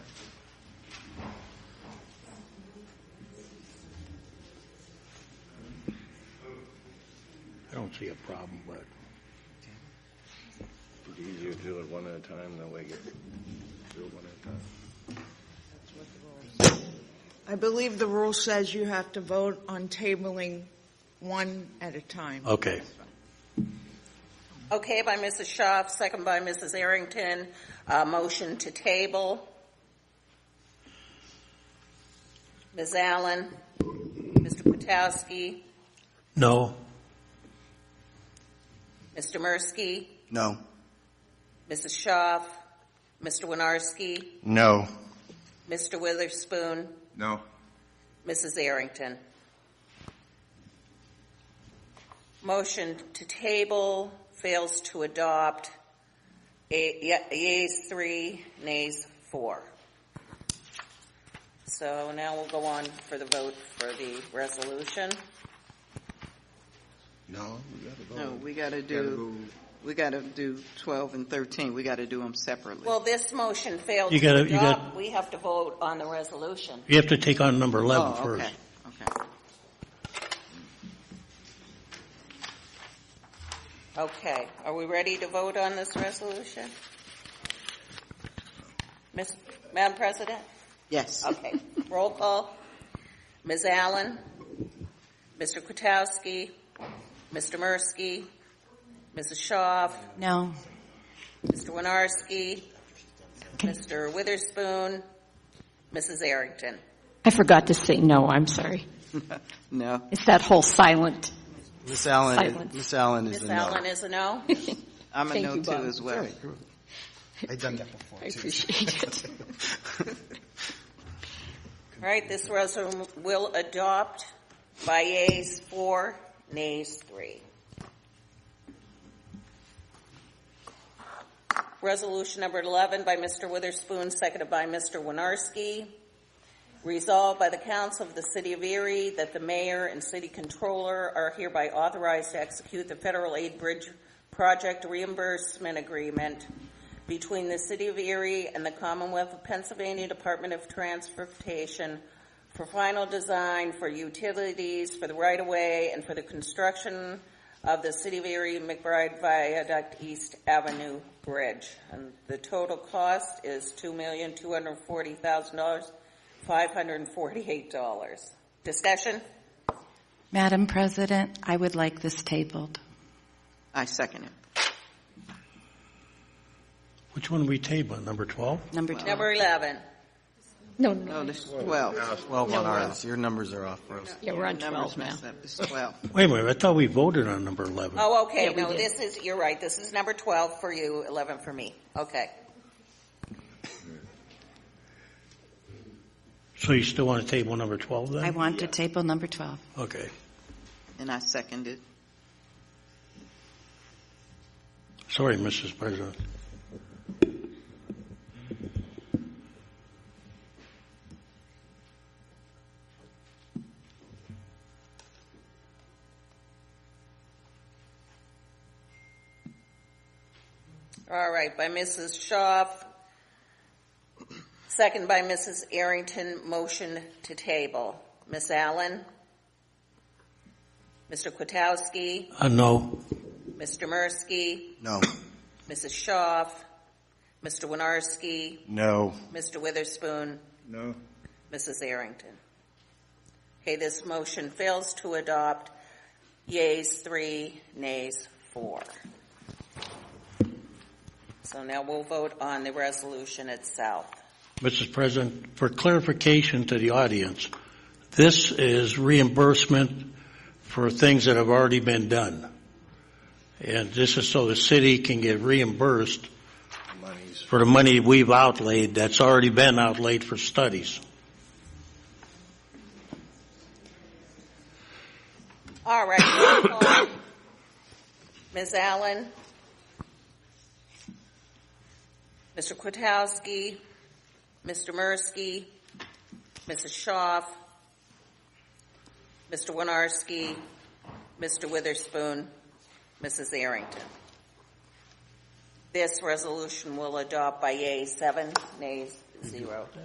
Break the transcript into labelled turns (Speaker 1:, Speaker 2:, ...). Speaker 1: don't see a problem with it.
Speaker 2: It'd be easier to do it one at a time, that way you get, do it one at a time.
Speaker 3: I believe the rule says you have to vote on tabling one at a time.
Speaker 1: Okay.
Speaker 4: Okay, by Mrs. Schaaf, second by Mrs. Arrington, uh, motion to table. Ms. Allen, Mr. Potowski,
Speaker 1: No?
Speaker 4: Mr. Mursky,
Speaker 5: No.
Speaker 4: Mrs. Schaaf, Mr. Winarski,
Speaker 5: No.
Speaker 4: Mr. Witherspoon,
Speaker 5: No.
Speaker 4: Mrs. Arrington. Motion to table fails to adopt. A- ye- Yeas three, nays four. So now we'll go on for the vote for the resolution.
Speaker 2: No, we gotta vote.
Speaker 6: No, we gotta
Speaker 2: Gotta
Speaker 6: do,
Speaker 2: go-
Speaker 6: we gotta do twelve and thirteen, we gotta do them separately.
Speaker 4: Well, this motion failed
Speaker 1: You
Speaker 4: to
Speaker 1: gotta- you got-
Speaker 4: adopt. We have to vote on the resolution.
Speaker 1: You have to take on number 11
Speaker 6: Oh,
Speaker 1: first.
Speaker 6: okay, Okay,
Speaker 4: Okay, are we ready to vote on this resolution? Miss, Madam President?
Speaker 6: yes.
Speaker 4: Okay, roll call. Ms. Allen, Mr. Kwiatkowski, Mr. Mursky, Mrs. Shaw,
Speaker 7: No.
Speaker 4: Mr. Winarski, Mr. Witherspoon, Mrs. Arrington.
Speaker 7: I forgot to say no, I'm sorry.
Speaker 6: No,
Speaker 7: It's that whole silent.
Speaker 5: Miss Allen,
Speaker 7: Silence.
Speaker 5: Miss Allen is a
Speaker 4: Ms.
Speaker 5: no.
Speaker 4: Allen is a no?
Speaker 6: I'm a
Speaker 7: Thank
Speaker 6: no
Speaker 7: you, Bob.
Speaker 6: too as well.
Speaker 5: I've done that before.
Speaker 7: I appreciate it.
Speaker 4: All right, this resolution will adopt by yeas four, nays three. Resolution number 11 by Mr. Witherspoon, seconded by Mr. Winarski. Resolved by the Council of the City of Erie that the mayor and city controller are hereby authorized to execute the federal aid bridge project reimbursement agreement between the City of Erie and the Commonwealth of Pennsylvania Department of Transportation for final design for utilities for the right-of-way and for the construction of the City of Erie McBride Viaduct East Avenue Bridge. And the total cost is two million, two hundred and forty thousand dollars, five hundred and forty-eight dollars. Discussion?
Speaker 7: Madam President, I would like this tabled.
Speaker 6: I second it.
Speaker 1: Which one are we tabling, number 12?
Speaker 7: Number 12.
Speaker 4: Number eleven.
Speaker 7: No,
Speaker 6: No,
Speaker 7: no.
Speaker 6: this is twelve.
Speaker 5: Twelve on ours, your numbers are off for us.
Speaker 7: Yeah, we're on
Speaker 6: Numbers
Speaker 7: 12 now.
Speaker 6: messed up, it's twelve.
Speaker 1: Wait a minute, I thought we voted on number 11.
Speaker 4: Oh, okay,
Speaker 7: Yeah, we
Speaker 4: no,
Speaker 7: did.
Speaker 4: this is, you're right, this is number twelve for you, eleven for me. Okay.
Speaker 1: So you still want to table number 12 then?
Speaker 7: I want to table number 12.
Speaker 1: Okay.
Speaker 6: And I second it.
Speaker 1: Sorry, Mrs. President.
Speaker 4: All right, by Mrs. Schaaf, second by Mrs. Arrington, motion to table. Ms. Allen? Mr. Kwiatkowski?
Speaker 1: Uh, no.
Speaker 4: Mr. Mursky?
Speaker 5: No.
Speaker 4: Mrs. Schaaf? Mr. Winarski?
Speaker 5: No.
Speaker 4: Mr. Witherspoon?
Speaker 2: No,
Speaker 4: Mrs. Arrington? Okay, this motion fails to adopt. Yeas, three, nays, four. So now we'll vote on the resolution itself.
Speaker 1: Mrs. President, for clarification to the audience, this is reimbursement for things that have already been done. And this is so the city can get reimbursed
Speaker 2: money's,
Speaker 1: for the money we've outlaid that's already been outlaid for studies.
Speaker 4: All right, roll call. Ms. Allen? Mr. Kwiatkowski? Mr. Mursky? Mrs. Schaaf? Mr. Winarski? Mr. Witherspoon? Mrs. Arrington? This resolution will adopt by yea seven, nays zero.